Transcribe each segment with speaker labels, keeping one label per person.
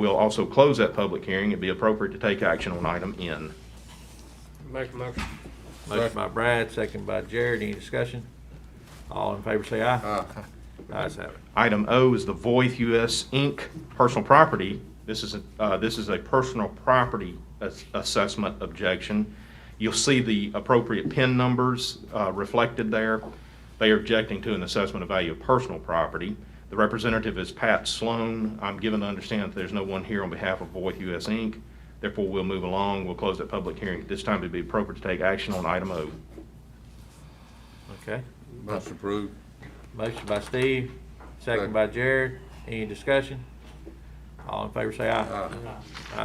Speaker 1: We'll also close that public hearing. It'd be appropriate to take action on item N.
Speaker 2: Make a motion.
Speaker 3: Motion by Brad, second by Jared. Any discussion? All in favor say aye.
Speaker 4: Aye.
Speaker 3: Ayes have it.
Speaker 1: Item O is the Voith US Inc. personal property. This is, a- uh, this is a personal property ass- assessment objection. You'll see the appropriate PIN numbers uh, reflected there. They are objecting to an assessment of value of personal property. The representative is Pat Sloan. I'm given to understand that there's no one here on behalf of Voith US Inc. Therefore, we'll move along. We'll close that public hearing. At this time, it'd be appropriate to take action on item O.
Speaker 3: Okay.
Speaker 4: Motion approved.
Speaker 3: Motion by Steve, second
Speaker 4: Second.
Speaker 3: by Jared. Any discussion? All in favor say
Speaker 4: Uh,
Speaker 3: aye.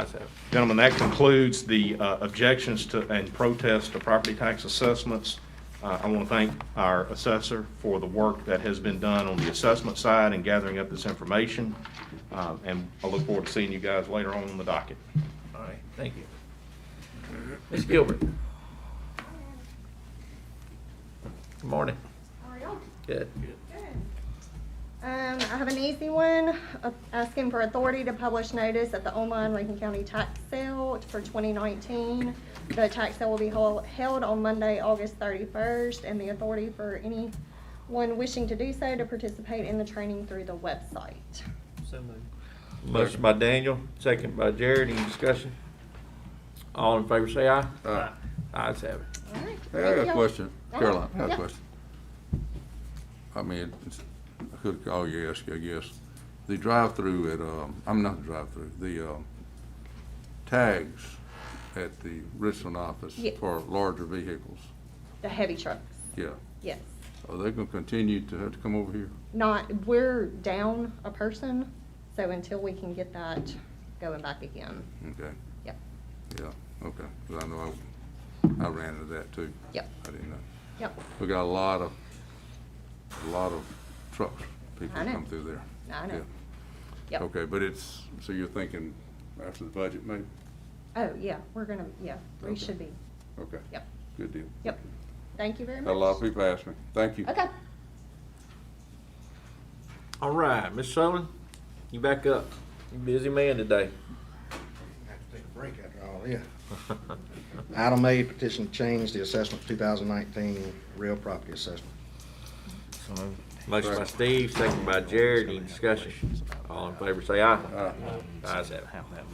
Speaker 3: Ayes have it.
Speaker 1: Gentlemen, that concludes the uh, objections to and protests to property tax assessments. Uh, I want to thank our assessor for the work that has been done on the assessment side and gathering up this information. Uh, And I look forward to seeing you guys later on in the docket.
Speaker 3: All right, thank you. Ms. Gilbert. Good morning.
Speaker 5: How are y'all?
Speaker 3: Good.
Speaker 5: Good. Um, I have an easy one, uh, asking for authority to publish notice at the online Lincoln County tax sale for twenty nineteen. The tax sale will be hol- held on Monday, August thirty-first, and the authority for anyone wishing to do so to participate in the training through the website.
Speaker 2: So moved.
Speaker 3: Motion by Daniel, second by Jared. Any discussion? All in favor say aye.
Speaker 4: Aye.
Speaker 3: Ayes have it.
Speaker 5: All right,
Speaker 4: Hey, I
Speaker 5: ready,
Speaker 4: got a
Speaker 5: y'all?
Speaker 4: question.
Speaker 5: Oh,
Speaker 4: Caroline, I got a
Speaker 5: yeah.
Speaker 4: question. I mean, it's, I could call you, ask you, I guess. The drive-through at, um, I'm not the drive-through, the, um, tags at the Richland office
Speaker 5: Yeah.
Speaker 4: for larger vehicles.
Speaker 5: The heavy trucks,
Speaker 4: Yeah.
Speaker 5: yes.
Speaker 4: Are they gonna continue to have to come over here?
Speaker 5: Not, we're down a person, so until we can get that going back again,
Speaker 4: Okay,
Speaker 5: yep.
Speaker 4: yeah, okay. 'Cause I know I, I ran into that too.
Speaker 5: Yep.
Speaker 4: I didn't know.
Speaker 5: Yep,
Speaker 4: We got a lot of, a lot of trucks, people
Speaker 5: I know.
Speaker 4: come through there.
Speaker 5: I know.
Speaker 4: Yeah.
Speaker 5: yep.
Speaker 4: Okay, but it's, so you're thinking after the budget maybe?
Speaker 5: Oh, yeah, we're gonna, yeah, we
Speaker 4: Okay.
Speaker 5: should be,
Speaker 4: Okay,
Speaker 5: yep,
Speaker 4: good deal.
Speaker 5: yep. Thank you very
Speaker 4: Had a
Speaker 5: much.
Speaker 4: lot of people ask me. Thank you.
Speaker 5: Okay.
Speaker 3: All right, Ms. Sullivan, you back up. You busy man today.
Speaker 6: Have to take a break after all this. Item A, petition to change the assessment of 2019 real property assessment.
Speaker 3: Motion by Steve, second by Jared. Any discussion? All in favor say
Speaker 4: Uh,
Speaker 3: aye. Ayes have it.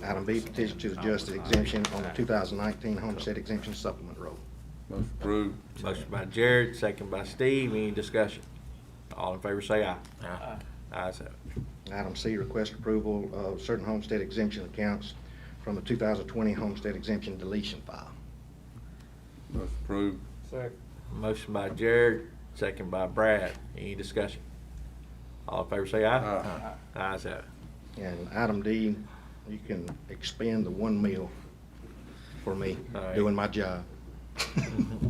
Speaker 6: Item B, petition to adjust the exemption on the 2019 homestead exemption supplement roll.
Speaker 4: Motion approved.
Speaker 3: Motion by Jared, second by Steve. Any discussion? All in favor say aye. Aye. Ayes have it.
Speaker 6: Item C, request approval of certain homestead exemption accounts from the 2020 homestead exemption deletion file.
Speaker 4: Motion approved.
Speaker 2: Second.
Speaker 3: Motion by Jared, second by Brad. Any discussion? All in favor say
Speaker 4: Uh,
Speaker 3: aye. Aye. Ayes have it.
Speaker 6: And item D, you can expend the one meal for me
Speaker 3: All right.
Speaker 6: doing my job.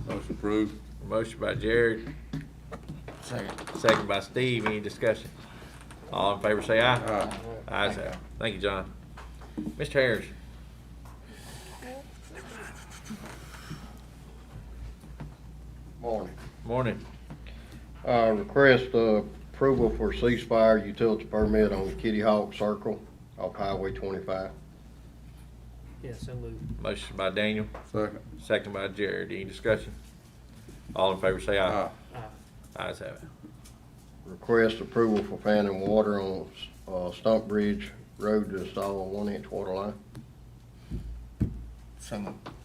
Speaker 4: Motion approved.
Speaker 3: Motion by Jared. Second. Second by Steve. Any discussion? All in favor say aye.
Speaker 4: Aye.
Speaker 3: Ayes have it. Thank you, John. Mr. Harris.
Speaker 7: Morning.
Speaker 3: Morning.
Speaker 7: Uh, request uh, approval for ceasefire utility permit on Kitty Hawk Circle off Highway twenty-five.
Speaker 2: Yeah, so moved.
Speaker 3: Motion by Daniel,
Speaker 4: Second.
Speaker 3: second by Jared. Any discussion? All in favor say
Speaker 4: Uh,
Speaker 3: aye.
Speaker 2: Ah,
Speaker 3: Ayes have it.
Speaker 7: Request approval for fan and water on uh, Stump Bridge Road to install a one-inch water line.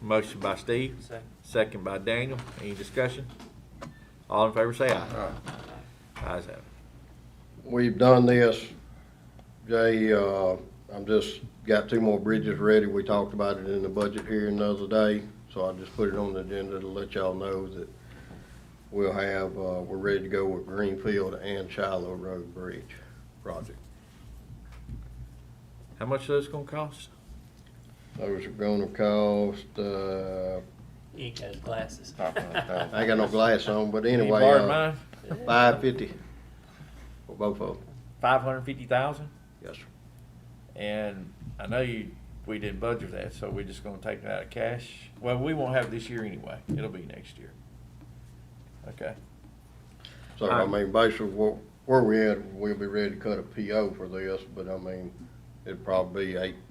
Speaker 3: Motion by Steve,
Speaker 2: Second.
Speaker 3: second by Daniel. Any discussion? All in favor say aye.
Speaker 4: Aye.
Speaker 3: Ayes have it.
Speaker 7: We've done this, Jay, uh, I'm just, got two more bridges ready. We talked about it in the budget hearing the other day, so I just put it on the agenda to let y'all know that we'll have, uh, we're ready to go with Greenfield and Shiloh Road Bridge project.
Speaker 3: How much is this gonna cost?
Speaker 7: Those are gonna cost, uh,
Speaker 2: He ain't got his glasses.
Speaker 7: I ain't got no glass on, but
Speaker 3: Can you
Speaker 7: anyway,
Speaker 3: borrow
Speaker 7: uh,
Speaker 3: mine?
Speaker 7: five fifty for both of them.
Speaker 3: Five hundred fifty thousand?
Speaker 7: Yes, sir.
Speaker 3: And I know you, we didn't budget that, so we're just gonna take it out of cash. Well, we won't have it this year anyway. It'll be next year. Okay.
Speaker 7: So, I
Speaker 3: Um,
Speaker 7: mean, basically, where, where we at, we'll be ready to cut a PO for this, but I mean, It'd probably be eight,